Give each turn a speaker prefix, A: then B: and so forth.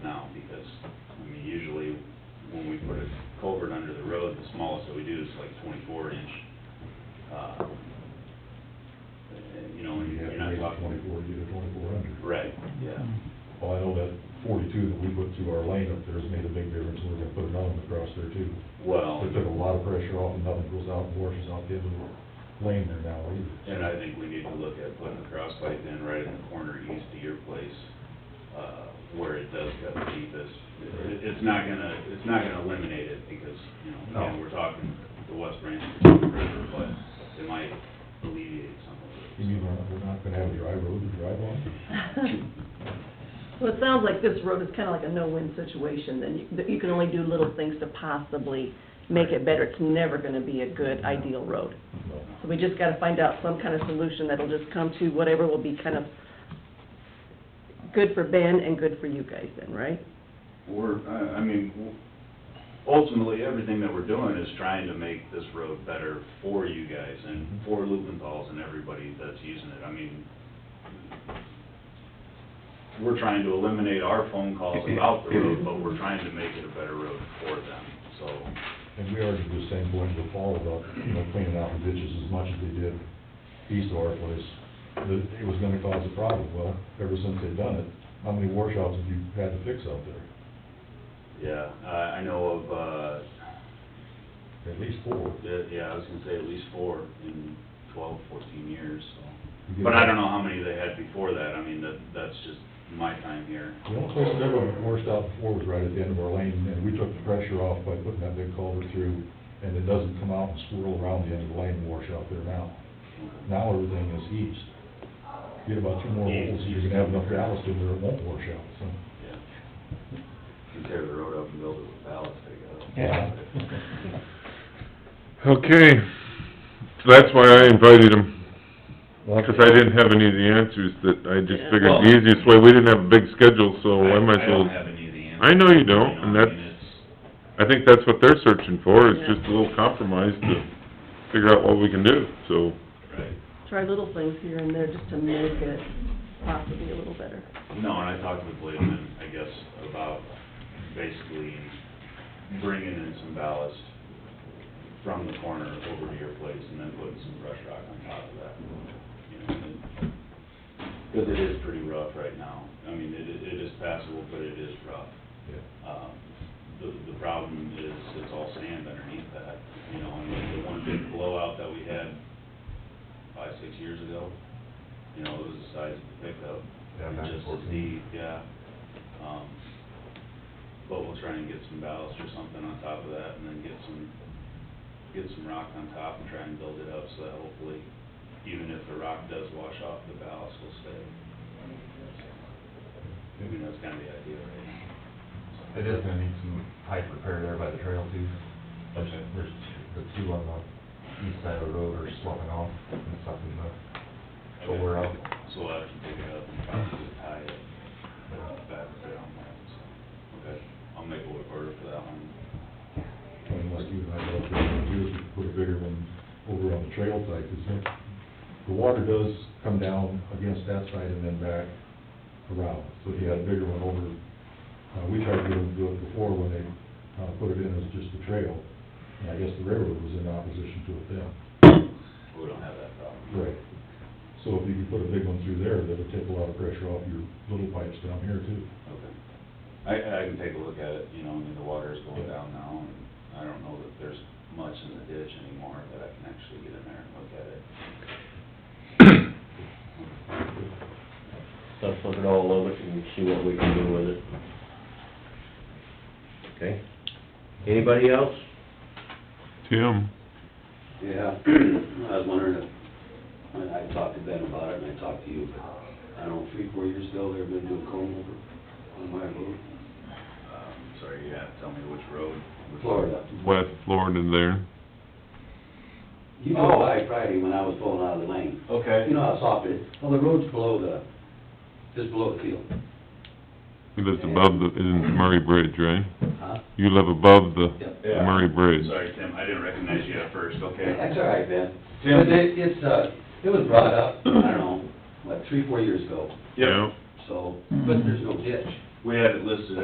A: uh,
B: two that we put through our lane up there has made a big difference, and we're gonna put another one across there too.
A: Well,
B: It took a lot of pressure off, and nothing goes out and washes out the end of the lane there now either.
A: and I think we need to look at putting a cross pipe in right in the corner east of your place, uh, where it does cut the deepest. It, it's not gonna, it's not gonna eliminate it, because, you know, again,
B: No.
A: we're talking the west branch of the river, but it might alleviate some
B: You
A: of it.
B: mean, we're not- we're not gonna have a dry road to drive on?
C: Well, it sounds like this road is kind of like a no-win situation, then you, that you can only do little things to possibly make it better. It's never going to be a good, ideal road.
B: No.
C: So we just got to find out some kind of solution that'll just come to whatever will be kind of good for Ben and good for you guys then, right?
A: We're, I, I mean, w- ultimately, everything that we're doing is trying to make this road better for you guys and for Lubenthal's and everybody that's using it. I mean, we're trying to eliminate our phone calls about the road, but we're trying to make it a better road for them, so.
B: And we already do the same going to fall about, you know, cleaning out the ditches as much as they did east of our place. That it was gonna cause a problem. Well, ever since they've done it, how many washouts have you had to fix out there?
A: Yeah, I, I know of, uh,
B: At least four.
A: yeah, yeah, I was gonna say at least four in twelve, fourteen years, so.
B: You
A: But
B: get-
A: I don't know how many they had before that, I mean, that, that's just my time here.
B: The only place that ever washed out before was right at the end of our lane, and we took the pressure off by putting that big culvert through, and it doesn't come out and swirl around the end of the lane and wash out there now. Now everything is east. Get about two more holes, you're gonna have enough ballast in there, it won't wash out, so.
A: Yeah. You tear the road up and build it with ballast, I guess.
D: Okay, so that's why I invited him, 'cause I didn't have any of the answers that, I just
C: Yeah.
D: figured the easiest way, we didn't have a big schedule, so I might as
A: I don't
D: well...
A: have any of the answers.
D: I know you don't, and
A: I mean,
D: that's- I think that's what they're searching for, is just a little compromise to figure out what we can do, so...
A: it's- Right.
C: Try little things here and there just to make it possibly a little better.
A: No, and I talked with Blademan, I guess, about basically bringing in some ballast from the corner over to your place and then putting some brush rock on top of that. you know, and- Cause it is pretty rough right now. I mean, it, it is passable, but it is rough. Um, The, the problem is, it's all sand underneath that, you know, and the one big blowout that we had five, six years ago, you know, it was the size of the pickup.
B: Yeah,
A: It
B: back
A: Just
B: and forth.
A: as deep, yeah. Um, But we'll try and get some ballast or something on top of that, and then get some, get some rock on top and try and build it up, so that hopefully, even if the rock does wash off, the ballast will stay. I mean, that's kind of the idea, right?
E: It is gonna need some pipe repair there by the trail too. There's, there's the two on the east side of the road are swapping off and sucking the shoulder out.
A: So I can pick it up and probably tie it back there on that, so, okay, I'll make a work order for that one.
B: And like you and I both said, we do put a bigger one over on the trail side, because the water does come down against that side and then back around. So if you had a bigger one over, uh, we tried to do it- do it before when they, uh, put it in as just a trail. And I guess the railroad was in opposition to it then.
A: We don't have that problem.
B: Right. So if you could put a big one through there, that would take a lot of pressure off your little pipes down here too.
A: Okay. I, I can take a look at it, you know, I mean, the water is going down now, and I don't know that there's much in the ditch anymore that I can actually get in there and look at it.
F: Let's look at all of it and see what we can do with it. Okay? Anybody else?
D: Tim?
G: Yeah, I was wondering if, I mean, I talked to Ben about it and I talked to you, but I don't know, three, four years ago, there have been doing comb over on my road,
A: Um, sorry, you have to tell me which road. which-
G: Florida.
D: West Florida there.
G: You know, by Friday when I was pulling out of the lane, you
A: Okay.
G: know how soft it is, well, the road's below the, just below the field,
D: He lives above the, in Murray Bridge, right?
G: huh?
D: You live above the
G: Yep.
A: Yeah.
D: Murray Bridge.
A: Sorry, Tim, I didn't recognize you at first, okay.
G: That's all right, Ben.
A: Tim?
G: But it, it's, uh, it was brought up, I don't know, like, three, four years ago,
A: Yep,
G: so, but there's no ditch.
A: we had it listed